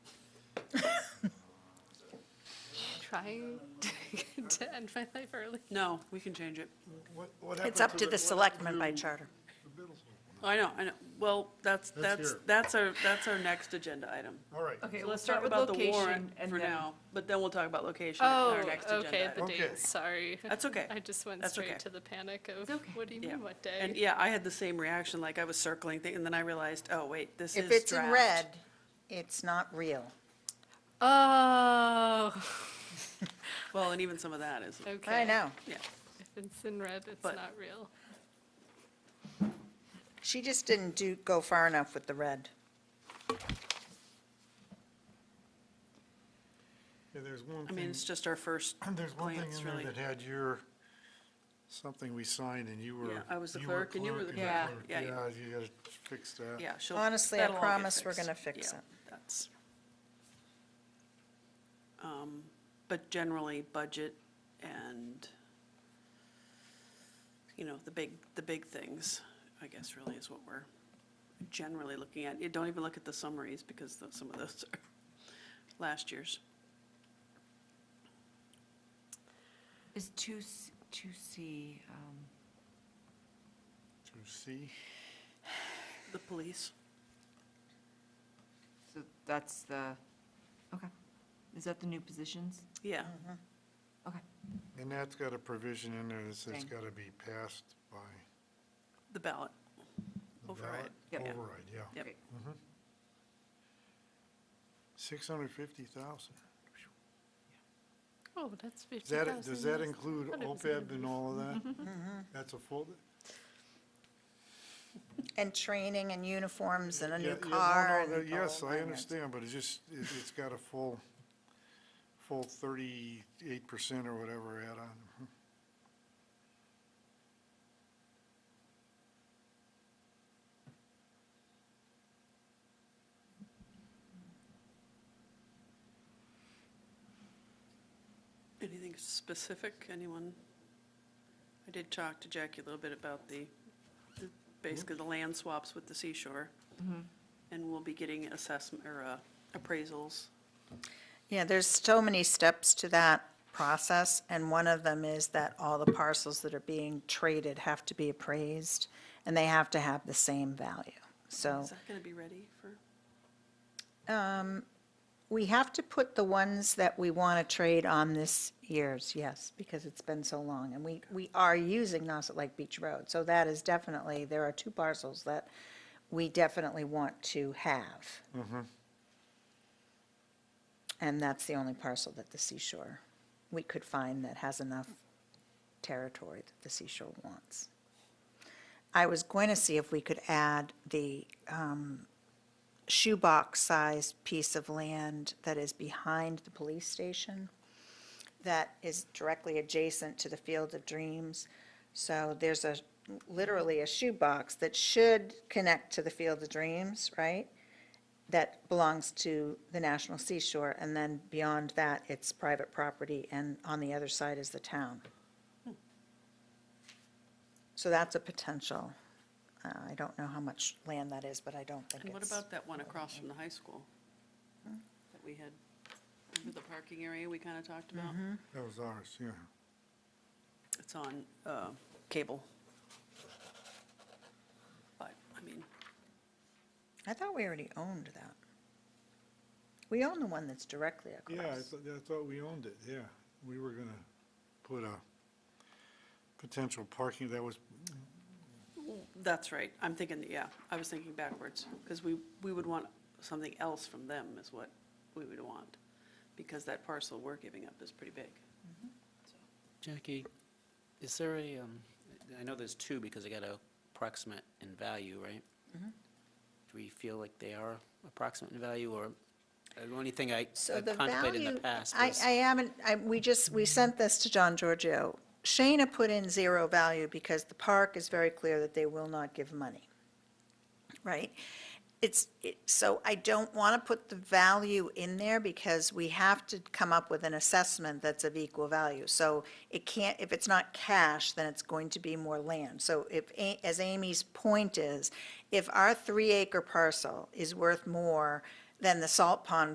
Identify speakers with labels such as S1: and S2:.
S1: trying to, to end my life early.
S2: No, we can change it.
S3: What, what happened
S4: It's up to the selectmen by
S3: to
S4: charter.
S3: the middle school?
S2: I know, I know. Well, that's, that's,
S3: here.
S2: that's our, that's our next agenda item.
S3: All right.
S5: Okay,
S2: So
S5: we'll
S2: we'll
S5: start
S2: talk
S5: with
S2: about the
S5: location
S2: warrant
S5: and
S2: for
S5: then-
S2: now, but then we'll talk about location in
S1: Oh,
S2: our next
S1: okay,
S2: agenda
S1: the
S2: item.
S3: Okay.
S1: date, sorry.
S2: That's okay.
S1: I just went
S2: That's okay.
S1: straight to the panic of,
S5: okay.
S1: what do you
S2: Yeah.
S1: mean, what day?
S2: And e- yeah, I had the same reaction, like I was circling, thi- and then I realized, oh, wait, this is
S4: If
S2: draft.
S4: it's in red, it's not real.
S1: Oh,
S2: Well, and even some of that is,
S1: okay.
S4: I know.
S2: yeah.
S1: If it's in red, it's
S2: But-
S1: not real.
S4: She just didn't do, go far enough with the red.
S3: Yeah, there's one
S2: I mean,
S3: thing,
S2: it's just our first
S3: Mm-hmm. there's one thing
S2: glance,
S3: in
S2: really.
S3: there that had your, something we signed and you were.
S2: Yeah, I was the clerk and you were the
S5: clerk.
S2: Yeah,
S3: Yeah,
S2: yeah,
S3: you gotta fix that.
S2: Yeah, she'll.
S4: Honestly, I
S2: that'll all get
S4: promise we're
S2: fixed.
S4: gonna fix
S2: Yeah,
S4: it.
S2: That's. Um, But generally, budget and, you know, the big, the big things, I guess really is what we're generally looking at. You don't even look at the summaries because tho- some of those are last year's.
S5: Is two, s- two C, um,
S3: To see,
S2: The police,
S5: so that's the, okay. Is that the new positions?
S2: yeah,
S5: Okay.
S3: and that's got a provision in there that says
S5: Thing.
S3: gotta be passed by
S2: the ballot,
S3: the
S2: override.
S3: ballot.
S5: Yep. Yeah.
S3: Override, yeah. Mm-hmm.
S2: Yep.
S5: Great.
S3: Six hundred fifty thousand.
S1: Oh, that's fifty
S3: Does that,
S1: thousand.
S3: does that include
S1: thought it was
S3: OPEB and all of that? That's a full,
S4: And training and uniforms and a
S3: Yeah,
S4: new
S3: yeah, no,
S4: car
S3: no,
S4: and oh
S3: no,
S4: the whole
S3: Yes, I
S4: nine yards.
S3: understand, but it's just, it- it's got a full, full thirty-eight percent or whatever add on.
S2: Anything specific, anyone? I did talk to Jackie a little bit about the, the- basically the land swaps with the seashore. And we'll be getting assessment, or uh, appraisals.
S4: Yeah, there's so many steps to that process, and one of them is that all the parcels that are being traded have to be appraised, and they have to have the same value. So
S2: Is that going to be ready for,
S4: we have to put the ones that we want to trade on this year's, yes, because it's been so long. And we, we are using Nauset Lake Beach Road, so that is definitely, there are two parcels that we definitely want to have. And that's the only parcel that the seashore, we could find that has enough territory that the seashore wants. I was going to see if we could add the um, shoebox-sized piece of land that is behind the police station, that is directly adjacent to the Field of Dreams. So there's a, literally a shoebox that should connect to the Field of Dreams, right? That belongs to the National Seashore, and then beyond that, it's private property, and on the other side is the town. So that's a potential. Uh, I don't know how much land that is, but I don't think it's.
S2: and what about that one across from the high school? That we had, remember the parking area we kind of talked about?
S3: That was ours, yeah.
S2: It's on uh, cable. But, I mean,
S4: I thought we already owned that. We own the one that's directly
S3: Yeah, I
S4: across.
S3: thought, I thought we owned it, yeah. We were gonna put a potential parking, that was,
S2: that's right. I'm thinking, yeah, I was thinking backwards, because we, we would want something else from them is what we would want, because that parcel we're giving up is pretty big.
S6: Jackie, is there a, um, I know there's two because I got a approximate in value, right?
S4: Mm-hmm.
S6: Do we feel like they are approximate in value, or uh, the only thing I
S4: So
S6: I've
S4: the
S6: contemplated in
S4: value,
S6: the past
S4: I,
S6: was,
S4: I haven't, I, we just, we sent this to John Giorgio. Shayna put in zero value because the park is very clear that they will not give money. Right? It's, it- so I don't want to put the value in there because we have to come up with an assessment that's of equal value. So it can't, if it's not cash, then it's going to be more land. So if, A- as Amy's point is, if our three-acre parcel is worth more than the salt pond